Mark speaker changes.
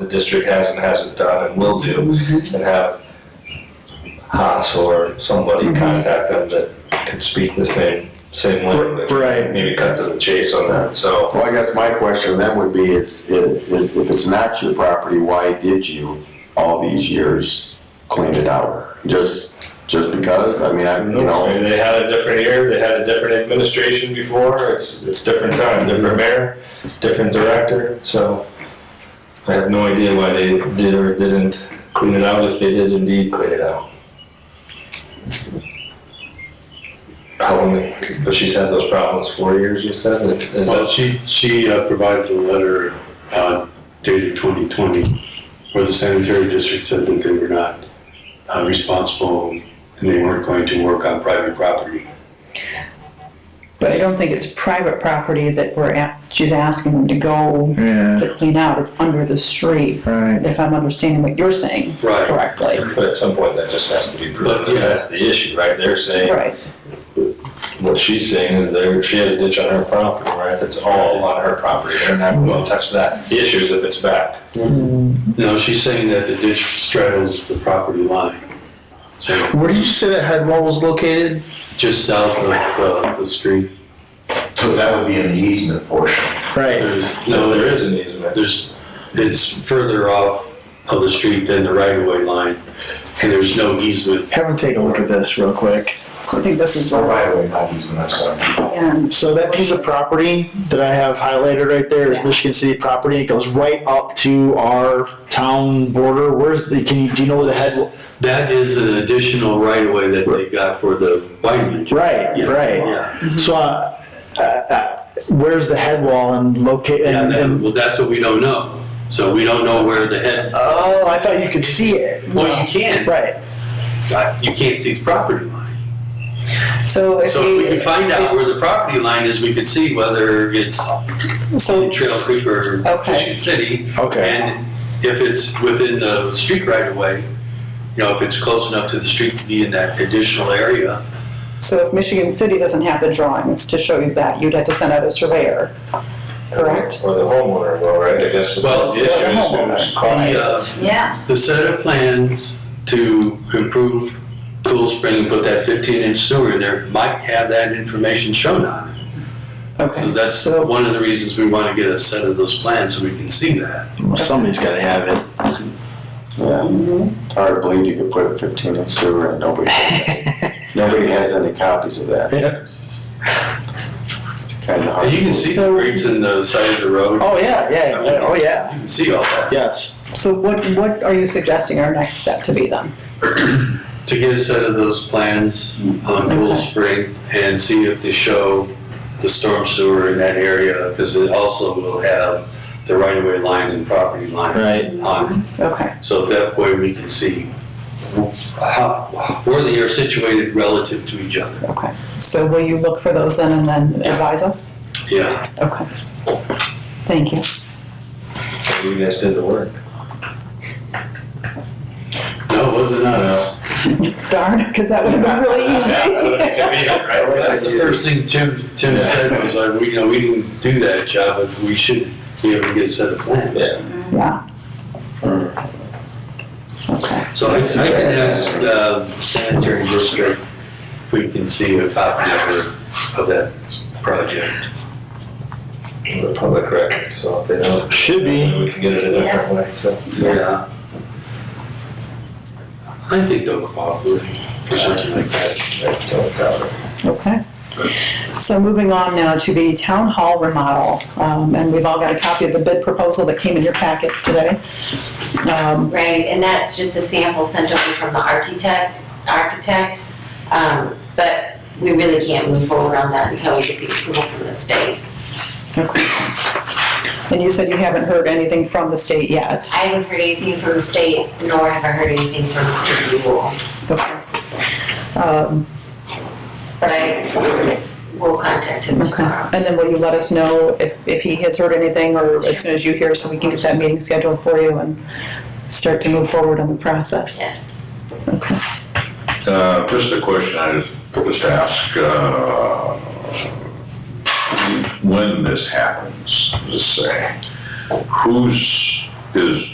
Speaker 1: the district has and hasn't done and will do, and have Haas or somebody contact them that could speak the same, same language.
Speaker 2: Right.
Speaker 1: Maybe cut to the chase on that, so.
Speaker 3: Well, I guess my question then would be is, is if it's not your property, why did you all these years clean it out? Just, just because? I mean, I, you know,
Speaker 1: Maybe they had a different year, they had a different administration before, it's, it's different time, different mayor, different director, so. I have no idea why they did or didn't clean it out, if they did indeed clean it out. How long, but she's had those problems four years, you said, is
Speaker 4: Well,
Speaker 1: that,
Speaker 4: she, she uh, provided a letter uh, dated 2020 where the sanitary district said that they were not uh, responsible and they weren't going to work on private property.
Speaker 5: But I don't think it's private property that we're, a- she's asking them to go
Speaker 2: Yeah,
Speaker 5: to clean out, it's under the street,
Speaker 2: right.
Speaker 5: if I'm understanding what you're saying
Speaker 4: Right.
Speaker 5: correctly.
Speaker 1: but at some point that just has to be
Speaker 4: But,
Speaker 1: proven,
Speaker 4: yeah.
Speaker 1: that's the issue, right, they're saying,
Speaker 5: Right,
Speaker 1: what she's saying is there, she has a ditch on her property, right, that's all on her property, they're not
Speaker 6: Mm-hmm.
Speaker 1: gonna touch that, the issue is if it's back.
Speaker 4: No, she's saying that the ditch straddles the property line. So
Speaker 2: Where did you say that head wall was located?
Speaker 4: just south of uh, the street,
Speaker 6: So that would be in the easement portion.
Speaker 2: Right.
Speaker 4: there's,
Speaker 1: No, there is
Speaker 4: not
Speaker 1: an easement.
Speaker 4: There's, it's further off of the street than the right-of-way line and there's no easement.
Speaker 2: Have him take a look at this real quick.
Speaker 5: so I think this is
Speaker 6: Or
Speaker 5: where,
Speaker 6: right away, not easement, I'm sorry.
Speaker 5: and
Speaker 2: So that piece of property that I have highlighted right there is Michigan City property. It goes right up to our town border. Where's the, can you, do you know where the head?
Speaker 4: That is an additional right-of-way that they got for the widening.
Speaker 2: Right,
Speaker 4: Yeah,
Speaker 2: right.
Speaker 4: Yeah,
Speaker 2: So, uh, uh, uh, where's the head wall and locate,
Speaker 4: and
Speaker 2: and,
Speaker 4: then,
Speaker 2: and,
Speaker 4: well, that's what we don't know. So we don't know where the head,
Speaker 2: oh, I thought you could see it.
Speaker 4: well, you can,
Speaker 2: Right.
Speaker 4: but you can't see the property line.
Speaker 5: so if
Speaker 4: So if we
Speaker 5: we,
Speaker 4: could find out where the property line is, we could see whether it's
Speaker 5: so,
Speaker 4: in Trail Creek or
Speaker 5: Okay.
Speaker 4: Michigan City.
Speaker 2: Okay.
Speaker 4: And if it's within the street right-of-way, you know, if it's close enough to the street to be in that additional area,
Speaker 5: so if Michigan City doesn't have the drawings to show you that, you'd have to send out a surveyor, correct?
Speaker 1: Or the homeowner will, right? I guess
Speaker 4: Well,
Speaker 1: the issue is who's
Speaker 4: the,
Speaker 1: calling.
Speaker 4: uh,
Speaker 5: Yeah.
Speaker 4: The set of plans to improve Cool Spring and put that fifteen inch sewer in there might have that information shown on it. So
Speaker 5: Okay,
Speaker 4: that's
Speaker 5: So-
Speaker 4: one of the reasons we want to get a set of those plans so we can see that.
Speaker 2: Well, somebody's gotta have it.
Speaker 3: yeah. Hard to believe you could put a fifteen inch sewer and nobody, nobody has any copies of that. It's kinda hard.
Speaker 4: And you
Speaker 3: to
Speaker 4: can
Speaker 3: believe.
Speaker 4: see the
Speaker 5: So-
Speaker 4: grades in the side of the road.
Speaker 2: Oh, yeah, yeah, yeah, oh, yeah.
Speaker 4: You can see all that.
Speaker 2: Yes.
Speaker 5: so what, what are you suggesting our next step to be then?
Speaker 4: To get a set of those plans on Cool
Speaker 5: Okay.
Speaker 4: Spring and see if they show the storm sewer in that area, because it also will have the right of way lines and property lines
Speaker 2: Right.
Speaker 4: on it.
Speaker 5: Okay.
Speaker 4: So that way we can see how, where they are situated relative to each other.
Speaker 5: Okay, so will you look for those then and then advise us?
Speaker 4: Yeah.
Speaker 5: Okay. Thank you.
Speaker 1: You guys did the work.
Speaker 4: No, it wasn't us.
Speaker 5: Darn, because that would have been really easy.
Speaker 4: That's the first thing Tim, Tim said was like, we, you know, we didn't do that job, but we should be able to get a set of plans.
Speaker 1: Yeah.
Speaker 5: Yeah. Okay,
Speaker 4: So I I can ask the sanitary district if we can see a copy of, her- of that project.
Speaker 1: The public record, so if they don't,
Speaker 2: Should be.
Speaker 1: we can get it a different way, so.
Speaker 4: Yeah. I think they'll cooperate for something like that.
Speaker 5: okay. So moving on now to the town hall remodel, um, and we've all got a copy of the bid proposal that came in your packets today. Um,
Speaker 7: Right, and that's just a sample sent over from the architect, architect. Um, But we really can't move forward on that until we get the approval from the state.
Speaker 5: okay. And you said you haven't heard anything from the state yet.
Speaker 7: I haven't heard anything from the state, nor have I heard anything from Mr. Buell.
Speaker 5: Okay. Um,
Speaker 7: But I will contact him
Speaker 5: Okay,
Speaker 7: tomorrow.
Speaker 5: and then will you let us know if, if he has heard anything or as soon as you hear, so we can get that meeting scheduled for you and start to move forward on the process?
Speaker 7: Yes.
Speaker 5: Okay,
Speaker 8: Uh, Just a question I just, just ask, uh, when this happens, just say, whose is